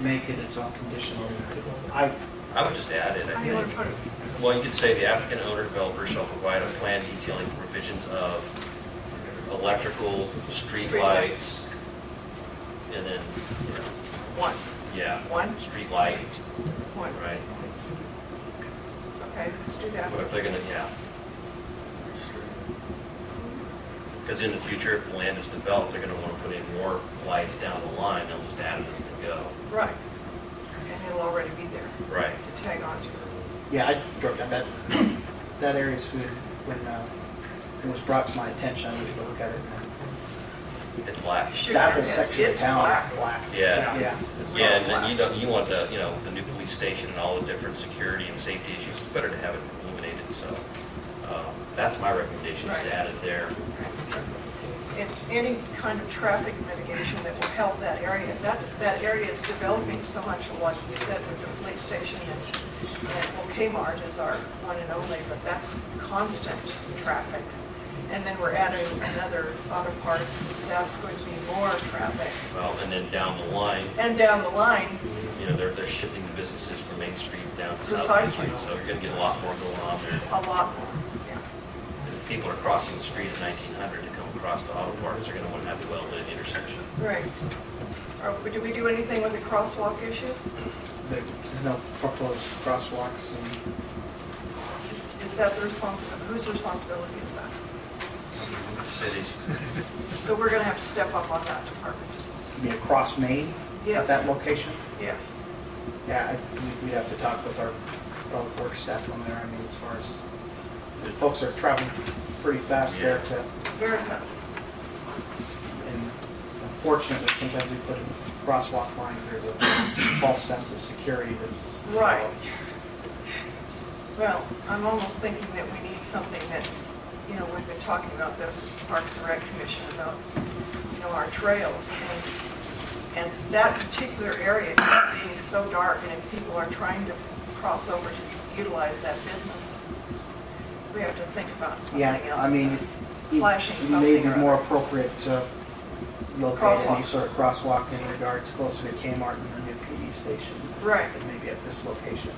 make it its own condition. I, I would just add it, I I would think, put, well, you could say the applicant owner developer shall provide a plan detailing provisions of electrical, street lights, and then, you know, one, yeah, one, street light, one. right? Okay, let's do that. But if they're gonna, yeah. Because in the future, if the land is developed, they're gonna wanna put in more lights down the line, they'll just add it as they go. Right. And it'll already be there Right. to tag on to. Yeah, I drove down that, that area's food when uh, it was brought to my attention, I needed to look at it. It's black. Shoot, That whole it- section of it's town black. is black. Yeah. Yeah. Yeah, and then you don't, you want the, you know, the new police station and all the different security and safety issues, it's better to have it illuminated, so, um, that's my recommendation, is to add it there. It's any kind of traffic mitigation that will help that area. That, that area is developing so much, like you said, with the police station and, and well, Kmart is our one and only, but that's constant traffic. And then we're adding another auto parts, that's going to be more traffic. Well, and then down the line, And down the line, you know, they're, they're shifting the businesses from Main Street down to South Precisely. Street, so you're gonna get a lot more going on there. a lot more, yeah. If people are crossing the street at nineteen hundred to come across to auto parts, they're gonna wanna have a well-lit intersection. Right. Or Do we do anything with the crosswalk issue? There- There's no proposed crosswalks and Is- Is that the responsibility, whose responsibility is that? Cities, So we're going to have to step up on that department. be across Main at Yes. that location. Yes. Yeah, I- we- we'd have to talk with our public works staff on there, I mean, as far as, folks are traveling pretty fast there to, Very fast. and unfortunately, sometimes we put in crosswalk lines, there's a false sense of security that's. Right. Well, I'm almost thinking that we need something that's, you know, we've been talking about this at the Parks and Rec Commission about, you know, our trails. And and that particular area being so dark and if people are trying to cross over to utilize that business, we have to think about something Yeah, else. I mean, it- Flashing Maybe something or more other. appropriate to locate any Crosswalk. sort of crosswalk in regards closer to Kmart and the new PD station, Right, than maybe at this location.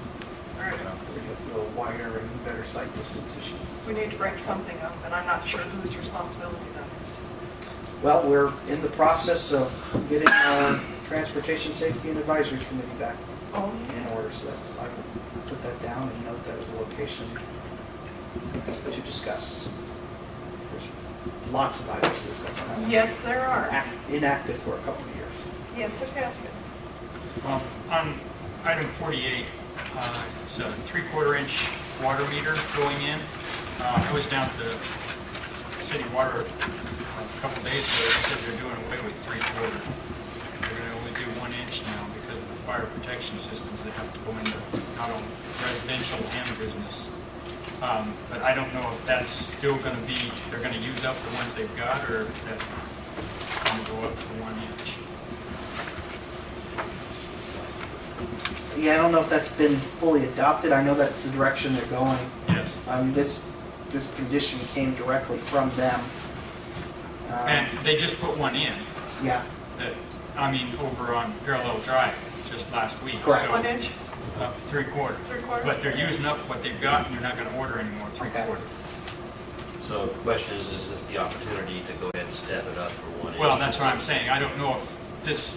right. you know, we get a little wider and better sight distance issues. We need to break something up and I'm not sure whose responsibility that is. Well, we're in the process of getting our Transportation Safety and Advisory Committee back Oh, in order, so that's, I will put that down and note that as a location to discuss. There's lots of items to discuss on that one. Yes, there are. Act- Inactive for a couple of years. Yes, it has been. Um, On item 48, uh, it's a three-quarter inch water meter going in. Uh, I was down at the city water uh, a couple days ago, they said they're doing away with three-quarter. They're going to only do one inch now because of the fire protection systems that have to go into not only residential and business. Um, But I don't know if that's still going to be, they're going to use up the ones they've got, or if that's going to go up to one inch. Yeah, I don't know if that's been fully adopted, I know that's the direction they're going. Yes. Um, this, this condition came directly from them. Um, And they just put one in, Yeah, that, I mean, over on Parallel Drive, just last week. Correct. So, One inch, uh, Three quarter. three quarters? But they're using up what they've got, and they're not gonna order anymore, three Okay. quarter. so the question is, is this the opportunity to go ahead and step it up for one inch? Well, that's what I'm saying, I don't know if this,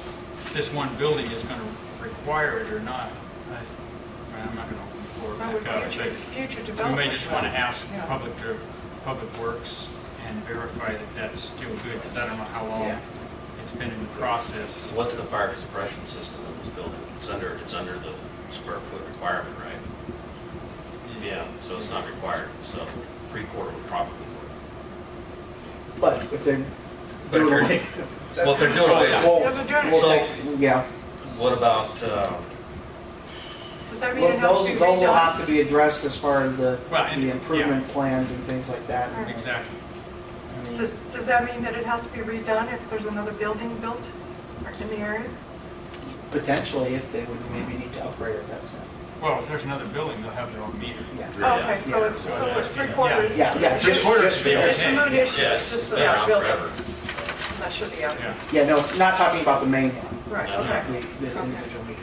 this one building is gonna require it or not. I- I'm not gonna open the floor I would back up, future, but future we development. may just wanna ask Yeah. Public, Dir- Public Works and verify that that's still good, because I don't know how long Yeah. it's been in the process. So what's the fire suppression system in this building? It's under, it's under the square foot requirement, right? Yeah, so it's not required, so three quarter would probably work. but if they're. But if you're- Well, if they're doing away, with Yeah, but doing it- Well, So- they- Yeah, it, what about, Oh, uh, Does that mean Well, it has those, to be those will have to redone? be addressed as far as the, Well, and- the improvement plans and things like that. Exactly. I mean, Does- Does that mean that it has to be redone if there's another building built in the area? Potentially, if they would maybe need to upgrade it, that's it. Well, if there's another building, they'll have their own meter. Yeah. Yeah. Oh, Okay, so it's, Yeah. so it's three quarters. Yeah, yeah. Three just- quarters just- would be It's okay. a mood issue, yeah, it's it's just for been that around building. forever. That should be out. Yeah, Yeah, no, it's not talking about the main one. Right, Not okay. the the Okay. individual meter.